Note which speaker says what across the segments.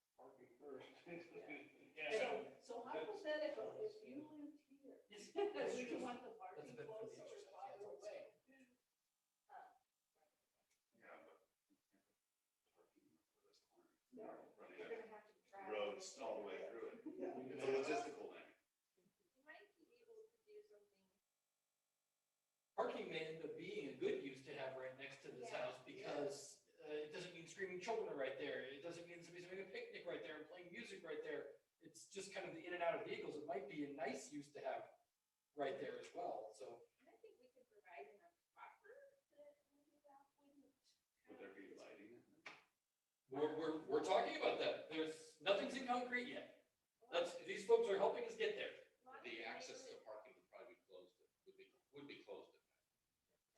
Speaker 1: That's
Speaker 2: You
Speaker 1: true.
Speaker 2: want the parking
Speaker 1: bit for the
Speaker 2: closer or
Speaker 1: exercise, yeah,
Speaker 2: farther
Speaker 1: that's what I'm
Speaker 3: Yeah, but.
Speaker 2: away? No,
Speaker 3: Running
Speaker 2: you're
Speaker 3: out
Speaker 2: gonna have to
Speaker 3: of
Speaker 2: drive.
Speaker 3: roads all the way through it.
Speaker 2: Yeah.
Speaker 3: It's a logistical thing.
Speaker 4: You might be able to do something.
Speaker 1: Parking may end up being a good use to have right next to this
Speaker 4: Yeah.
Speaker 1: house because uh, it doesn't mean screaming children are right there. It doesn't mean somebody's having a picnic right there and playing music right there. It's just kind of the in and out of vehicles. It might be a nice use to have right there as well, so.
Speaker 4: And I think we could provide enough buffer that maybe that wouldn't.
Speaker 3: Would there be lighting? in it?
Speaker 1: We're, we're, we're talking about that. There's, nothing's in concrete yet. That's, these folks are helping us get there.
Speaker 5: The access to parking would probably be closed, at- would be, would be closed at night.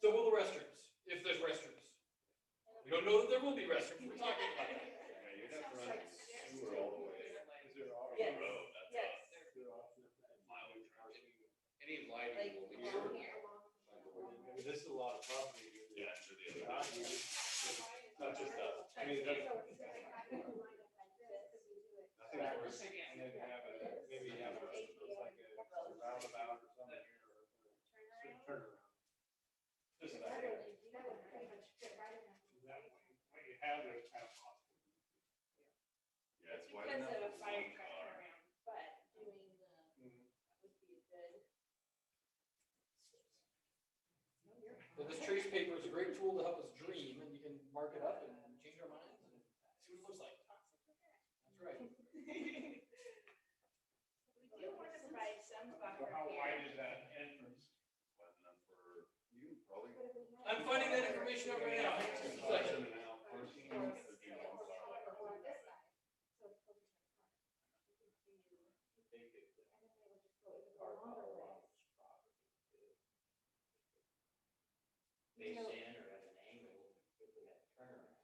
Speaker 1: So will the restrooms, if there's restrooms. We don't know that there will be restrooms. We're talking about that.
Speaker 3: Yeah, you'd have to
Speaker 2: Sounds
Speaker 3: run
Speaker 2: like
Speaker 3: sewer all the way. on the
Speaker 2: Yes.
Speaker 3: road, that's
Speaker 2: Yes.
Speaker 3: all. Mileage drive.
Speaker 5: Any lighting will be.
Speaker 4: Like
Speaker 5: served
Speaker 4: along here,
Speaker 5: by-
Speaker 4: along
Speaker 5: by the
Speaker 4: here.
Speaker 5: way.
Speaker 6: This is a lot of property.
Speaker 3: Yeah, and to the other.
Speaker 6: Yeah.
Speaker 3: Not just us.
Speaker 6: I mean, that's-
Speaker 4: So it's like having a lineup like this, if you do it.
Speaker 6: That's what I was thinking, and then have a, maybe have a, like a roundabout or something here, or a
Speaker 4: Turn around.
Speaker 6: turnaround. This is that,
Speaker 4: That would- that would pretty much fit right in that.
Speaker 6: that way, what you have there is kind of possible.
Speaker 3: Yeah, it's wide
Speaker 4: Because
Speaker 3: enough.
Speaker 4: of a
Speaker 3: for
Speaker 4: fire
Speaker 3: one
Speaker 4: truck
Speaker 3: car.
Speaker 4: around, but doing the,
Speaker 6: Mm-hmm.
Speaker 4: would be a good. No, you're
Speaker 1: But this
Speaker 4: fine.
Speaker 1: trace paper is a great tool to help us dream and you can mark it up and change our minds and see what it looks like. That's right.
Speaker 4: We do want to provide some
Speaker 6: So
Speaker 4: buffer
Speaker 6: how
Speaker 4: here.
Speaker 6: wide is that entrance?
Speaker 3: Wide enough for you, probably.
Speaker 1: I'm finding that information out right now. Just a second.
Speaker 3: Section and a half person, it'd be one car like that.
Speaker 7: Based in or at an angle, if we had a turnaround,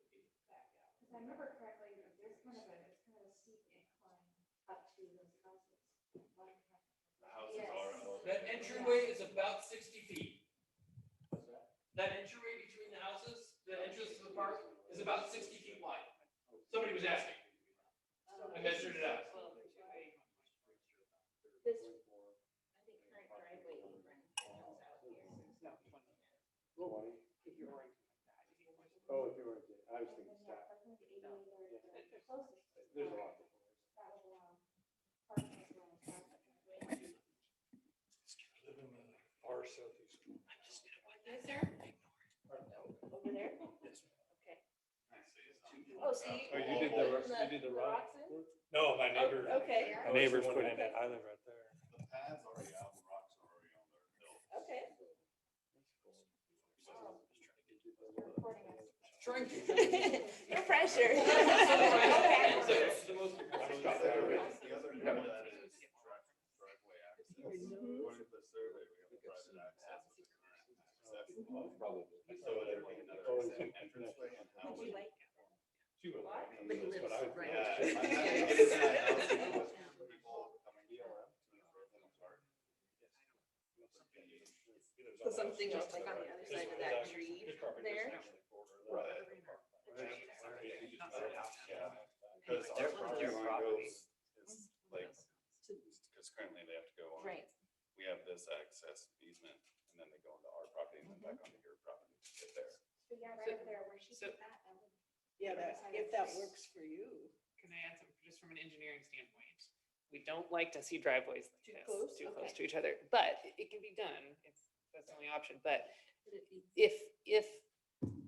Speaker 7: would be back out.
Speaker 2: If I remember correctly, there's kind of a, it's kind of a steep incline up to those houses. Like,
Speaker 3: The houses are
Speaker 4: Yes.
Speaker 3: elevated.
Speaker 1: That entryway is about sixty feet.
Speaker 6: What's that?
Speaker 1: That entryway between the houses, the entrance to the park is about sixty feet wide. Somebody was asking. I measured it out.
Speaker 4: This, I think current driveway comes out here.
Speaker 6: Oh, if you were, I was thinking
Speaker 2: yeah,
Speaker 6: stop.
Speaker 2: I think the ADA area is the closest to
Speaker 6: There's a
Speaker 2: park
Speaker 6: lot.
Speaker 2: That um, would allow parking as well as traffic.
Speaker 4: Yes, sir? Over there? Okay.
Speaker 3: I see, it's two
Speaker 4: Oh,
Speaker 3: blocks
Speaker 4: so you-
Speaker 3: up.
Speaker 4: Oh, you did the-
Speaker 6: you did
Speaker 4: The rocks in?
Speaker 6: No, my neighbor,
Speaker 4: Oh, Okay,
Speaker 6: my neighbor's put in it, I live right there.
Speaker 3: The pad's already out, the rocks are already on there. built.
Speaker 4: okay.
Speaker 2: You're recording us.
Speaker 1: Trying to.
Speaker 4: No pressure.
Speaker 1: It's
Speaker 4: Okay.
Speaker 1: the- it's the most-
Speaker 3: The other- the other end of that is drive- driveway
Speaker 4: Mhm.
Speaker 3: access. According to the survey, we have private access with the current access law. So would there be another
Speaker 6: Oh,
Speaker 3: exit
Speaker 6: it's-
Speaker 3: entranceway and how
Speaker 4: Would
Speaker 3: would?
Speaker 4: you like?
Speaker 6: She would like
Speaker 4: What?
Speaker 6: me,
Speaker 3: But he
Speaker 6: that's what I would-
Speaker 3: Yeah,
Speaker 6: Yeah.
Speaker 3: if I had to get in that house, it was people coming to our- to our Brooklyn apartment.
Speaker 4: So something just like on the other side of that tree there?
Speaker 3: Right. Yeah. Because our
Speaker 7: Their- their
Speaker 3: property line
Speaker 7: property.
Speaker 3: goes, it's like, because currently they have to go on,
Speaker 4: Right.
Speaker 3: we have this access easement, and then they go into our property and then back onto your property to get there.
Speaker 2: But yeah, right up there where she
Speaker 8: So-
Speaker 2: put that, that would.
Speaker 9: Yeah, that, if that works for you.
Speaker 8: Can I add some, just from an engineering standpoint? We don't like to see driveways like
Speaker 4: Too
Speaker 8: this,
Speaker 4: close?
Speaker 8: too close
Speaker 4: Okay.
Speaker 8: to each other, but it- it can be done. It's, that's the only option, but if, if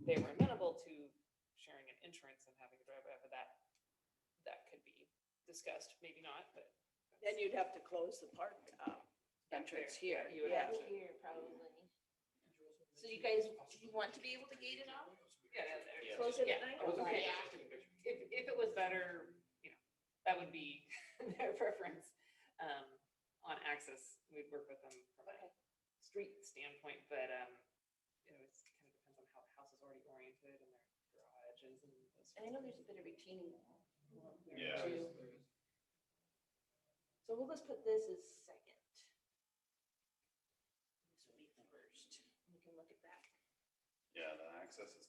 Speaker 8: they were amenable to sharing an entrance and having a driveway off of that, that could be discussed, maybe not, but.
Speaker 9: Then you'd have to close the park uh, entrance here.
Speaker 8: You would
Speaker 9: Yeah.
Speaker 8: have to.
Speaker 4: Here, probably. So you guys, you want to be able to gate it off?
Speaker 8: Yeah,
Speaker 5: Yeah.
Speaker 4: Close it at
Speaker 8: Yeah.
Speaker 4: night?
Speaker 1: I wasn't
Speaker 4: Okay.
Speaker 1: paying attention to the picture.
Speaker 8: if, if it was better, you know, that would be their preference, um, on access, we'd work with them from a street standpoint, but, um, you know, it's kind of depends on how the house is already oriented and their garages and those.
Speaker 4: And I know there's a bit of retaining wall.
Speaker 3: Yeah.
Speaker 4: too. So we'll just put this as second. This will be first. We can look at that.
Speaker 3: Yeah, the access is